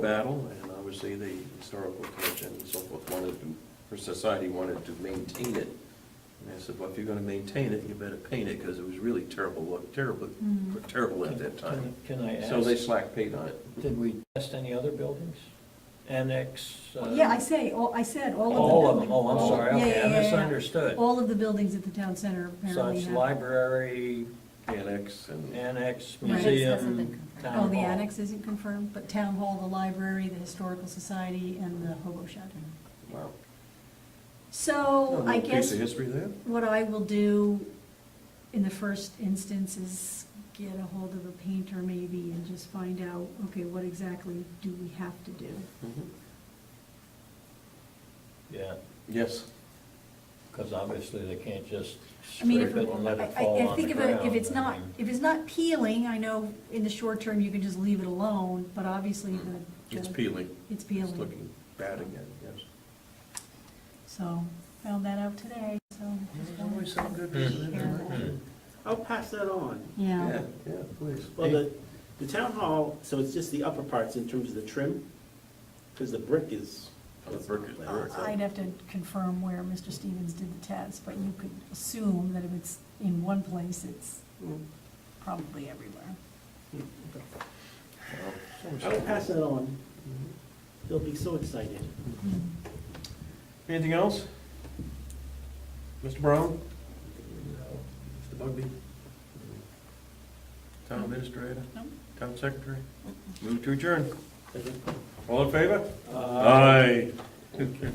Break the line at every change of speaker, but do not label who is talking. battle, and obviously the historical commission and so forth wanted to, her society wanted to maintain it. And I said, well, if you're gonna maintain it, you better paint it, because it was really terrible, look, terrible,
Mm.
terrible at that time.
Can can I
So they
ask,
slack paid on it.
did we test any other buildings? Annex? uh,
Yeah, I say, all- I said all of the.
All of them,
buildings.
oh, I'm sorry,
Yeah, yeah,
okay, I
yeah, yeah.
misunderstood.
All of the buildings at the town center apparently
Such
have.
library,
Annex and,
annex,
Right.
Annex hasn't been
museum,
confirmed.
town hall.
Oh, the annex isn't confirmed, but town hall, the library, the historical society, and the hobo shelter.
wow.
So
Little
I
Oh, Piece
guess
of history there.
what I will do in the first instance is get a hold of a painter maybe and just find out, okay, what exactly do we have to do?
Mhm.
Yeah,
Yes.
because obviously they can't just
I mean,
scrape
if,
it and let
I,
it fall
I- I
on
think
the
if, it-
ground.
if it's
I
not,
mean,
if it's not peeling, I know in the short term, you can just leave it alone, but obviously
Mm-hmm.
the. the-
Mm-hmm. It's peeling. It's
It's uh, peeling,
looking bad again, yes.
so, found that out today, so. just
There's always some good
Hmm.
pieces
Mm-hmm.
in there.
Hmm.
I'll pass that on.
Yeah,
Yeah, yeah, please.
Well, the, the town hall, so it's just the upper parts in terms of the trim, because the brick is.
Oh, the brick is brick.
Uh, so-
I'd have to confirm where Mr. Stevens did the test, but you could assume that if it's in one place, it's
Mm-hmm.
Mm,
probably everywhere.
okay.
Well,
I'll pass that on. They'll be so excited.
Mm-hmm.
Anything else? Mr. Brown? Mr. Bugby? Town administrator?
No.
Town secretary? Move to adjourn.
Doesn't-
Uh, All in favor? Aye.